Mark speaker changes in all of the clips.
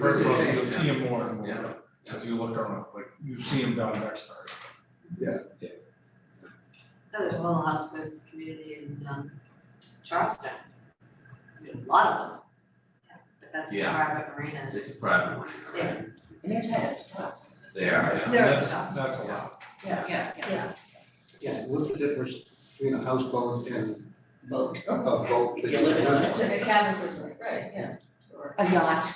Speaker 1: This
Speaker 2: River
Speaker 1: is
Speaker 2: Road, you'll
Speaker 1: safe,
Speaker 2: see them more and
Speaker 1: Yeah.
Speaker 2: more, as you look around, like, you see them down Dexter.
Speaker 3: No, Oh, there's a whole hospice community in um Charleston. There's A lot of them. But that's the
Speaker 1: Yeah.
Speaker 3: private marinas.
Speaker 1: It's a private one, right?
Speaker 3: Yeah.
Speaker 4: And they're tired to talk,
Speaker 1: They are, yeah.
Speaker 3: There are
Speaker 2: That's,
Speaker 3: some.
Speaker 2: that's a lot.
Speaker 4: yeah,
Speaker 3: Yeah, yeah.
Speaker 5: Yeah, what's the difference between a houseboat and
Speaker 4: boat,
Speaker 5: a boat?
Speaker 4: if you live in one, it's
Speaker 5: that-
Speaker 4: a cabin cruiser, right, yeah, or
Speaker 6: a yacht.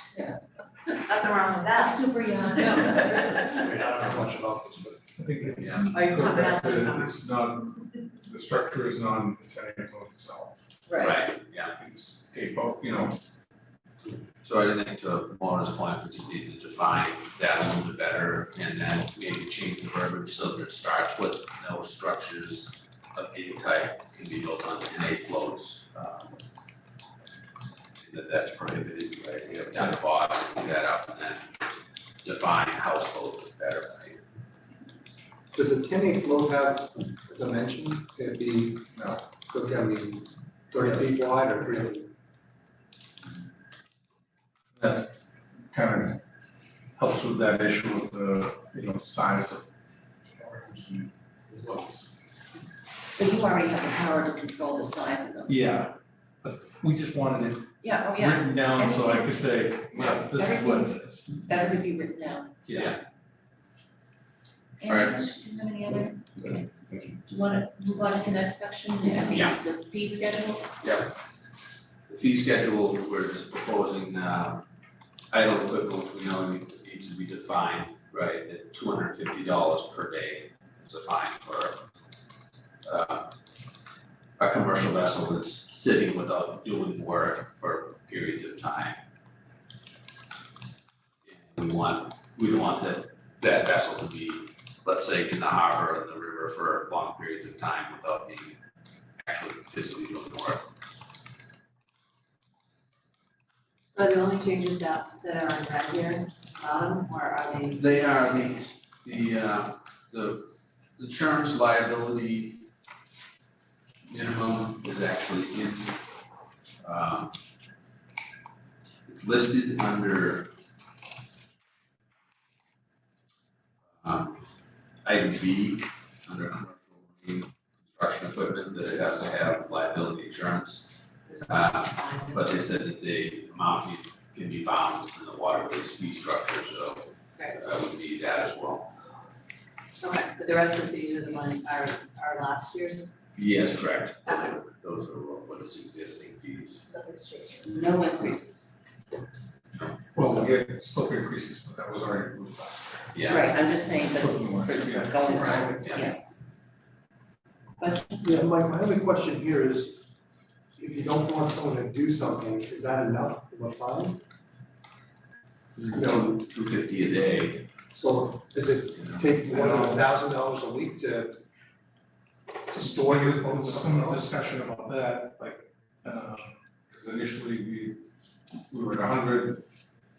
Speaker 3: Nothing wrong with
Speaker 4: a
Speaker 3: that.
Speaker 4: super yacht,
Speaker 3: No,
Speaker 5: I mean, I don't know much about this, but
Speaker 2: I think it's,
Speaker 1: Yeah.
Speaker 3: Are you
Speaker 2: go
Speaker 3: coming
Speaker 2: back
Speaker 3: out this
Speaker 2: to,
Speaker 3: summer?
Speaker 2: it's non, the structure is non-intended of itself.
Speaker 4: right,
Speaker 1: yeah.
Speaker 2: You can just Take both, you know,
Speaker 1: So I think to Mona's point, we just need to define that a little bit better and then maybe change the verbiage so that it starts with no structures of any type can be built on any floats. um, and That that's prohibited, right? We have down the bottom, do that up and then define household better, right?
Speaker 5: does a ten eight float have a dimension? Can it be,
Speaker 2: no,
Speaker 5: could it be thirty feet wide or three feet?
Speaker 2: that kind of helps with that issue of the, you know, size of arms and looks.
Speaker 6: But you already have the power to control the size of them.
Speaker 2: Yeah, but we just wanted it
Speaker 6: Yeah, oh
Speaker 2: written down so I could say, yeah, this is what it is.
Speaker 6: Better to be written down.
Speaker 1: Alright.
Speaker 6: Andrew, do you have any other, okay.
Speaker 2: Thank
Speaker 6: Do you wanna move on to the next section, the
Speaker 1: Yeah.
Speaker 6: fees, the fee schedule?
Speaker 1: The fee schedule, we're just proposing, uh, idle equipment, we know need- needs to be defined, right, at two hundred and fifty dollars per day is a fine for uh, a commercial vessel that's sitting without doing work for periods of time. And We want, we don't want that, that vessel to be, let's say, in the harbor or in the river for long periods of time without being actually physically doing work.
Speaker 3: Are the only changes that that are in red here, bottom, or are they?
Speaker 1: They are the, the, uh, the insurance liability minimum is actually in, um, it's listed under um, item B, under commercial marine construction equipment, that it has to have liability insurance. Uh, But they said that the amount can be found in the waterways fee structure, so
Speaker 3: Right,
Speaker 1: I would need that as well.
Speaker 3: okay, but the rest of these are the ones are are last year's,
Speaker 1: Yes, correct. Those are what is existing fees.
Speaker 3: nothing's changed.
Speaker 6: No increases.
Speaker 2: Well, we get slope increases, but that was already moved last
Speaker 1: Yeah.
Speaker 6: Right, I'm just saying,
Speaker 2: year.
Speaker 6: but for
Speaker 2: Something like, yeah.
Speaker 6: going
Speaker 1: Right,
Speaker 6: forward,
Speaker 1: yeah.
Speaker 6: yeah,
Speaker 5: Yeah, my, my only question here is, if you don't want someone to do something, is that enough of a fine? No.
Speaker 1: Two fifty a day,
Speaker 5: So does it
Speaker 1: you know.
Speaker 5: take more than a thousand dollars a week to, to store your
Speaker 2: There
Speaker 5: boat
Speaker 2: was some
Speaker 5: somewhere else?
Speaker 2: discussion about that, like, because initially we, we were at hundred,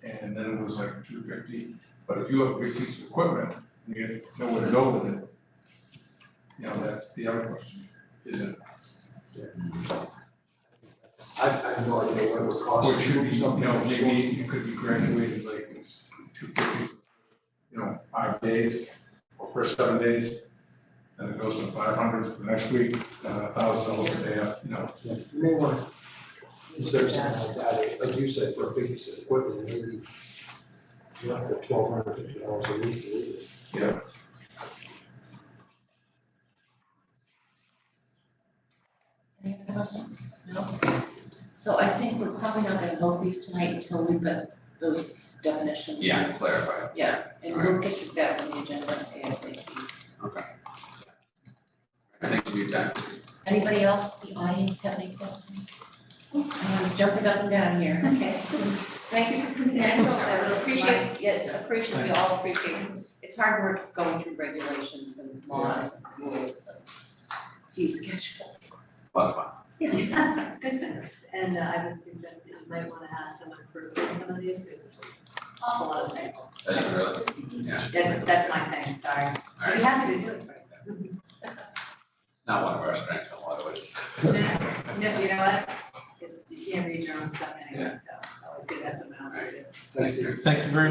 Speaker 2: and then it was like two fifty. But if you have a big piece of equipment, and you have nowhere to go with it, you know, that's the other question, is it,
Speaker 5: I, I have no idea what it would
Speaker 2: or
Speaker 5: cost
Speaker 2: it
Speaker 5: to
Speaker 2: should be,
Speaker 5: move
Speaker 2: you
Speaker 5: something.
Speaker 2: know,
Speaker 5: from
Speaker 2: maybe
Speaker 5: shore.
Speaker 2: you could be graduated like it's two fifty, you know, five days, or for seven days. And it goes from five hundred for the next week, uh, thousand dollars a day, uh, you know,
Speaker 5: Yeah, You may want to reserve something like that, like you said, for a big piece of equipment, maybe you have to twelve hundred fifty dollars a week to leave it.
Speaker 2: Yeah.
Speaker 6: any other questions? No? So I think we're probably not gonna vote these tonight until we've got those definitions.
Speaker 1: Yeah, clarify.
Speaker 6: Yeah, and we'll get you back on the agenda ASAP.
Speaker 1: I think we've done.
Speaker 6: Anybody else, in the audience have any questions? I was jumping up and down here.
Speaker 7: Okay, thank you for coming in, I really appreciate,
Speaker 6: yes, appreciate, we all appreciate, it's hard work going through regulations and laws and rules and fee schedules.
Speaker 1: A lot of fun.
Speaker 3: Yeah, it's good to, and uh, I would suggest that you might wanna have someone approve some of these, because there's an awful lot of people.
Speaker 1: I didn't really, yeah,
Speaker 3: That, that's my thing, sorry.
Speaker 1: all
Speaker 3: I'd
Speaker 1: right.
Speaker 3: be happy to do it for
Speaker 1: Not one of our strengths in a lot of ways.
Speaker 3: you. No, you know what? It's- You can't read your own stuff anyway, so.
Speaker 8: it's good to have something else to do.
Speaker 3: Thanks, Steve.
Speaker 5: Thank you very much.